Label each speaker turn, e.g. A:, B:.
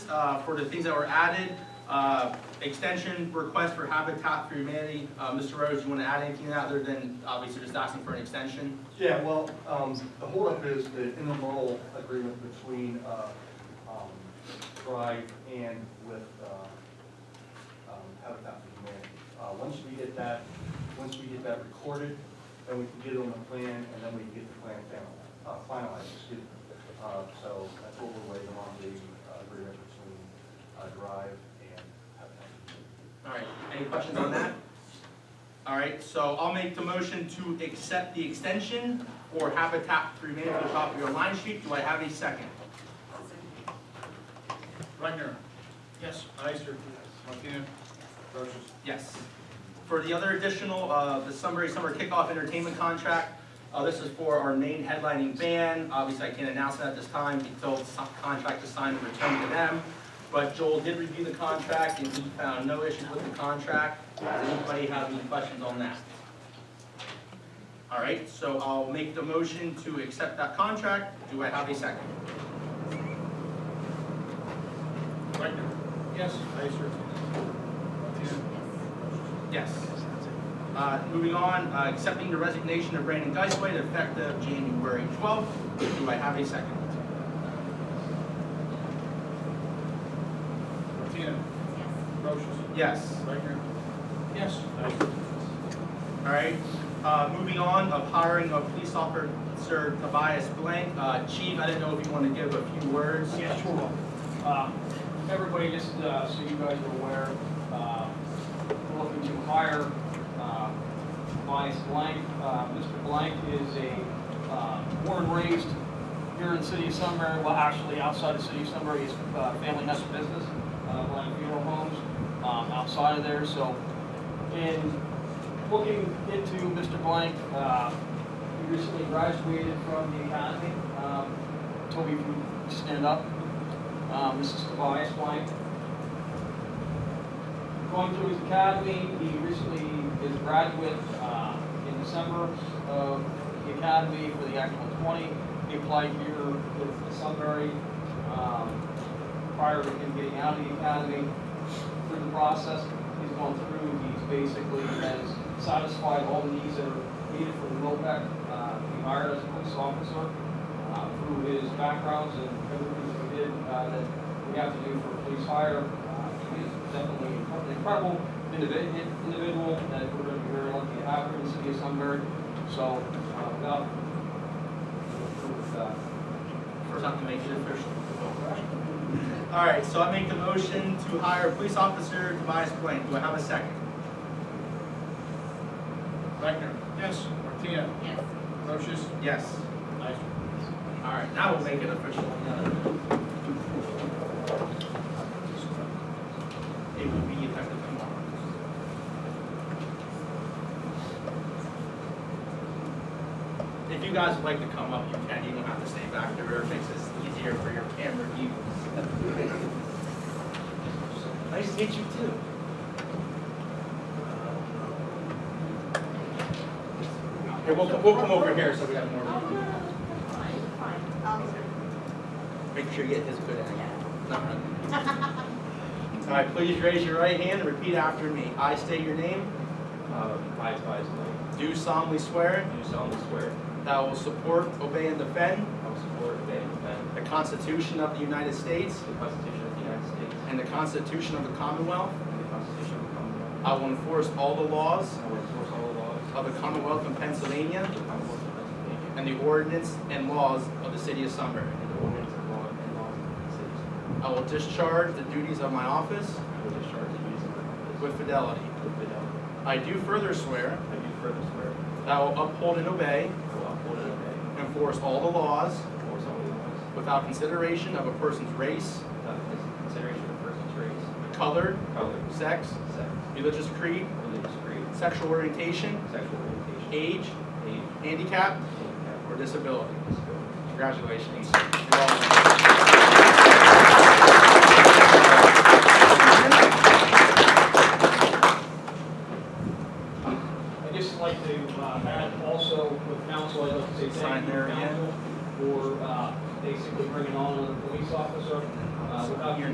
A: uh, for the things that were added. Uh, Extension request for Habitat for Humanity. Uh, Mr. Rose, you want to add anything other than obviously just asking for an extension?
B: Yeah, well, um, the holdup is the intermodal agreement between, uh, um, Pride and with, uh, um, Habitat for Humanity. Uh, once we get that, once we get that recorded, then we can get it on the plan, and then we can get the plan final- uh, finalized, excuse me. Uh, so that's what we're waiting on, the uh, agreement between, uh, Drive and Habitat for Humanity.
A: All right, any questions on that? All right, so I'll make the motion to accept the extension for Habitat for Humanity at the top of your line sheet. Do I have a second?
C: Rechner.
D: Yes.
C: Ister. Martina. Brochus.
A: Yes. For the other additional, uh, the Sunbury Summer Kickoff Entertainment Contract, uh, this is for our main headlining band. Obviously, I can't announce it at this time until the su- contract is signed and returned to them. But Joel did review the contract and he found no issues with the contract. Does anybody have any questions on that? All right, so I'll make the motion to accept that contract. Do I have a second?
C: Rechner. Yes. Ister. Martina.
A: Yes. Uh, Moving on, uh, accepting the resignation of Brandon Geisway effective January 12th. Do I have a second?
C: Martina. Brochus.
A: Yes.
C: Rechner. Yes. Ister.
A: All right. Uh, Moving on, of hiring of police officer Tobias Blank. Uh, Chief, I didn't know if you want to give a few words.
D: Yeah, sure. Um, Everybody, just uh, so you guys are aware, um, we're looking to hire um, Tobias Blank. Uh, Mr. Blank is a um, born and raised here in the city of Sunbury, well, actually outside the city of Sunbury, his uh, family has a business, uh, Blank Funeral Homes, um, outside of there, so in looking into Mr. Blank, uh, he recently graduated from the academy. Um, Toby, if you stand up. Um, Mrs. Tobias Blank. Going through his academy, he recently is a graduate, uh, in December of the academy for the actual twenty. He applied here with Sunbury, um, prior to him getting out of the academy. Through the process, he's gone through, he's basically has satisfied all the needs that are needed for the MOPEC. Uh, he hired as a police officer, uh, through his backgrounds and everything that we did, uh, that we have to do for a police hire. Uh, He is definitely an incredible individ- individual that we're gonna be very lucky to have here in the city of Sunbury. So, uh, without, with, uh,
A: First, I have to make it official. All right, so I make the motion to hire police officer Tobias Blank. Do I have a second?
C: Rechner. Yes. Martina.
E: Yes.
C: Brochus.
A: Yes.
C: Ister.
A: All right, now we'll make it official. It will be effective tomorrow. If you guys would like to come up, you can, you don't have to stay back there, it makes this easier for your camera views. Nice to meet you too. Here, we'll, we'll come over here so we have more.
E: Oh,
A: room.
E: no, no, that's fine, fine. I'll-
A: Make sure you get this good angle.
E: yeah.
A: Not really. All right, please raise your right hand and repeat after me. I state your name,
F: Uh, I, Tobias Blake,
A: do solemnly swear
F: do solemnly swear
A: that I will support, obey, and defend
F: I will support, obey, and defend
A: the Constitution of the United States
F: the Constitution of the United States
A: and the Constitution of the Commonwealth.
F: and the Constitution of the Commonwealth.
A: I will enforce all the laws
F: I will enforce all the laws
A: of the Commonwealth of Pennsylvania
F: of the Commonwealth of Pennsylvania
A: and the ordinance and laws of the City of Sunbury.
F: and the ordinance and law and laws of the city.
A: I will discharge the duties of my office
F: I will discharge the duties of my office
A: with fidelity.
F: with fidelity.
A: I do further swear
F: I do further swear
A: that I will uphold and obey,
F: I will uphold and obey
A: enforce all the laws
F: enforce all the laws
A: without consideration of a person's race,
F: without consideration of person's race,
A: color,
F: color,
A: sex,
F: sex,
A: religious creed,
F: religious creed,
A: sexual orientation,
F: sexual orientation,
A: age,
F: age,
A: handicap,
F: handicap,
A: or disability.
F: or disability.
A: Congratulations.
D: uh, uh,